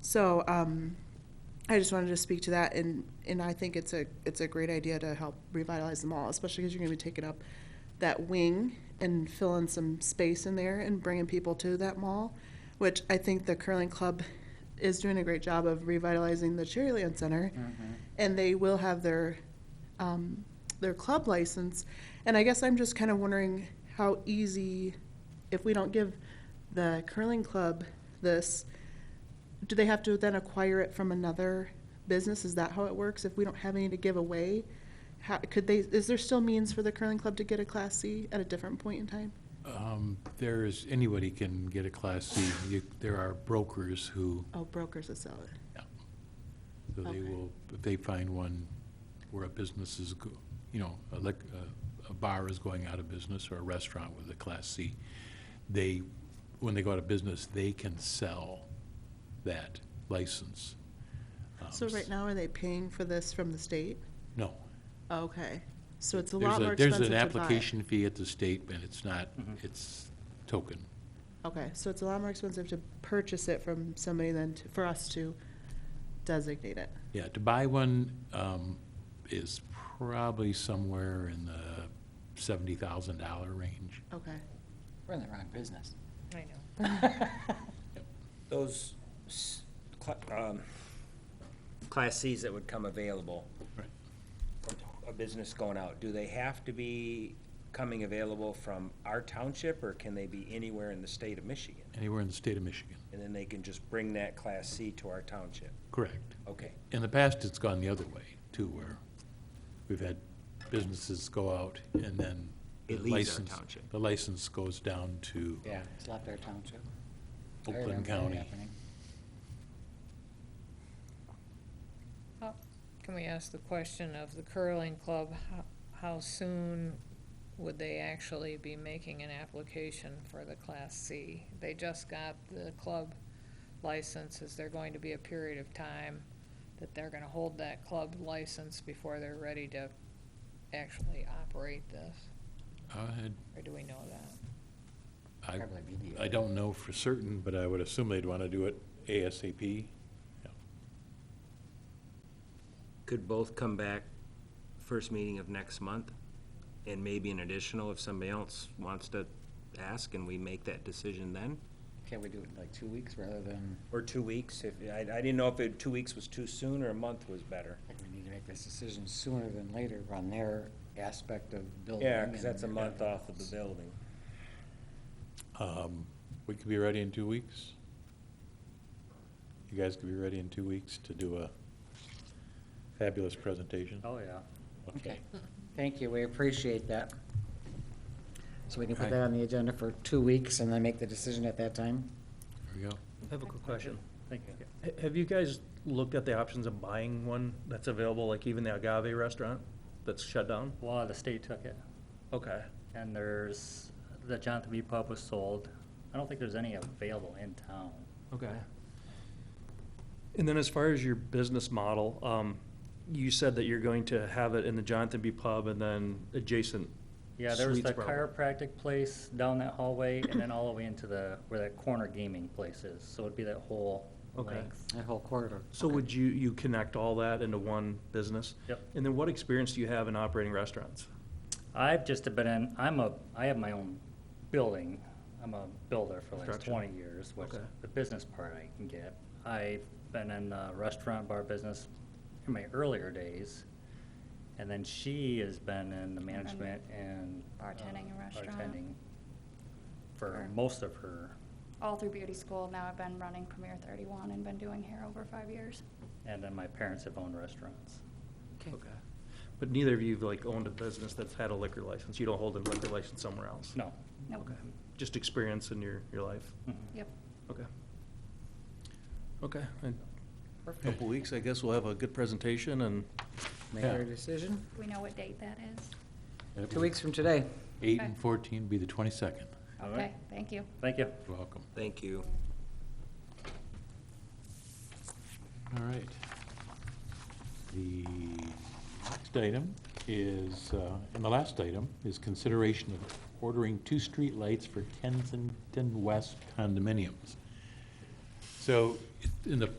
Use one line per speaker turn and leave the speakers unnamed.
So um, I just wanted to speak to that, and, and I think it's a, it's a great idea to help revitalize the mall, especially because you're going to be taking up that wing and filling some space in there and bringing people to that mall, which I think the curling club is doing a great job of revitalizing the Cherryland Center,
Mm-hmm.
and they will have their um, their club license. And I guess I'm just kind of wondering how easy, if we don't give the curling club this, do they have to then acquire it from another business? Is that how it works? If we don't have any to give away, how, could they, is there still means for the curling club to get a Class C at a different point in time?
Um, There is, anybody can get a Class C. You- There are brokers who,
Oh, brokers that sell it.
so they
Okay.
will, if they find one where a business is, go- you know, a lic- a- a bar is going out of business or a restaurant with a Class C, they, when they go out of business, they can sell that license. Um,
So right now, are they paying for this from the state?
No.
Okay, so it's a
There's
lot more
there's
expensive to buy.
an application fee at the state, and it's not, it's token.
Okay, so it's a lot more expensive to purchase it from somebody than to- for us to designate it.
Yeah, to buy one um, is probably somewhere in the seventy thousand dollar range.
Okay.
We're in the wrong business.
I know.
Those s- cla- um, Class Cs that would come available,
Right.
a business going out, do they have to be coming available from our township, or can they be anywhere in the state of Michigan?
Anywhere in the state of Michigan,
And then they can just bring that Class C to our township?
correct.
Okay.
In the past, it's gone the other way too, where we've had businesses go out and then the
It leaves our
license-
township.
The license goes down to
Yeah.
It's left our township. I
Oakland
remember that
County.
happening.
How- Can we ask the question of the curling club, how, how soon would they actually be making an application for the Class C? They just got the club license, is there going to be a period of time that they're gonna hold that club license before they're ready to actually operate this,
uh, I-
or do we know that?
I,
Probably be the-
I don't know for certain, but I would assume they'd want to do it ASAP.
Could both come back first meeting of next month, and maybe an additional if somebody else wants to ask, and we make that decision then?
Can't we do it in like two weeks rather than,
Or two weeks, if, I, I didn't know if it, two weeks was too soon, or a month was better.
I think we need to make this decision sooner than later on their aspect of building.
Yeah, because that's a
and-
month off of the building.
Um, We could be ready in two weeks. You guys could be ready in two weeks to do a fabulous presentation.
Oh, yeah.
Okay, thank you, we appreciate that. So we can put
Right.
that on the agenda for two weeks and then make the decision at that time?
There we go.
I have a quick question. Thank you. Have you guys looked at the options of buying one that's available, like even the Agave restaurant that's shut down?
Well, the state took it,
Okay.
and there's, the Jonathan B. Pub was sold. I don't think there's any available in town.
Okay. And then as far as your business model, um, you said that you're going to have it in the Jonathan B. Pub and then adjacent.
Yeah, there was
Suites
the
probably.
chiropractic place down that hallway, and then all the way into the, where that corner gaming place is, so it'd be that whole
Okay.
length.
That whole corridor?
So would you, you connect all that into one business?
Yep.
And then what experience do you have in operating restaurants?
I've just been in, I'm a, I have my own building. I'm a builder for the last
Construction.
twenty years, which
Okay.
the business part I can get. I've been in the restaurant bar business in my earlier days. And then she has been in the management and.
Bartending
um,
and restaurant.
bartending For
Or-
most of her,
all through beauty school. Now I've been running Premier 31 and been doing hair over five years.
and then my parents have owned restaurants.
Okay. But neither of you have like owned a business that's had a liquor license? You don't hold a liquor license somewhere else?
No.
Nope.
Okay. Just experience in your, your life?
Mhm.
Yep.
Okay. Okay. In a Couple weeks, I guess we'll have a good presentation and
Make our decision?
Do we know what date that is?
That
Two
would-
weeks from today.
Eight and fourteen be the twenty-second.
All right.
Okay, thank you.
Thank you.
You're welcome.
Thank you.
All right. The next item is, uh, and the last item is consideration of ordering two streetlights for Kensington West condominiums. So in the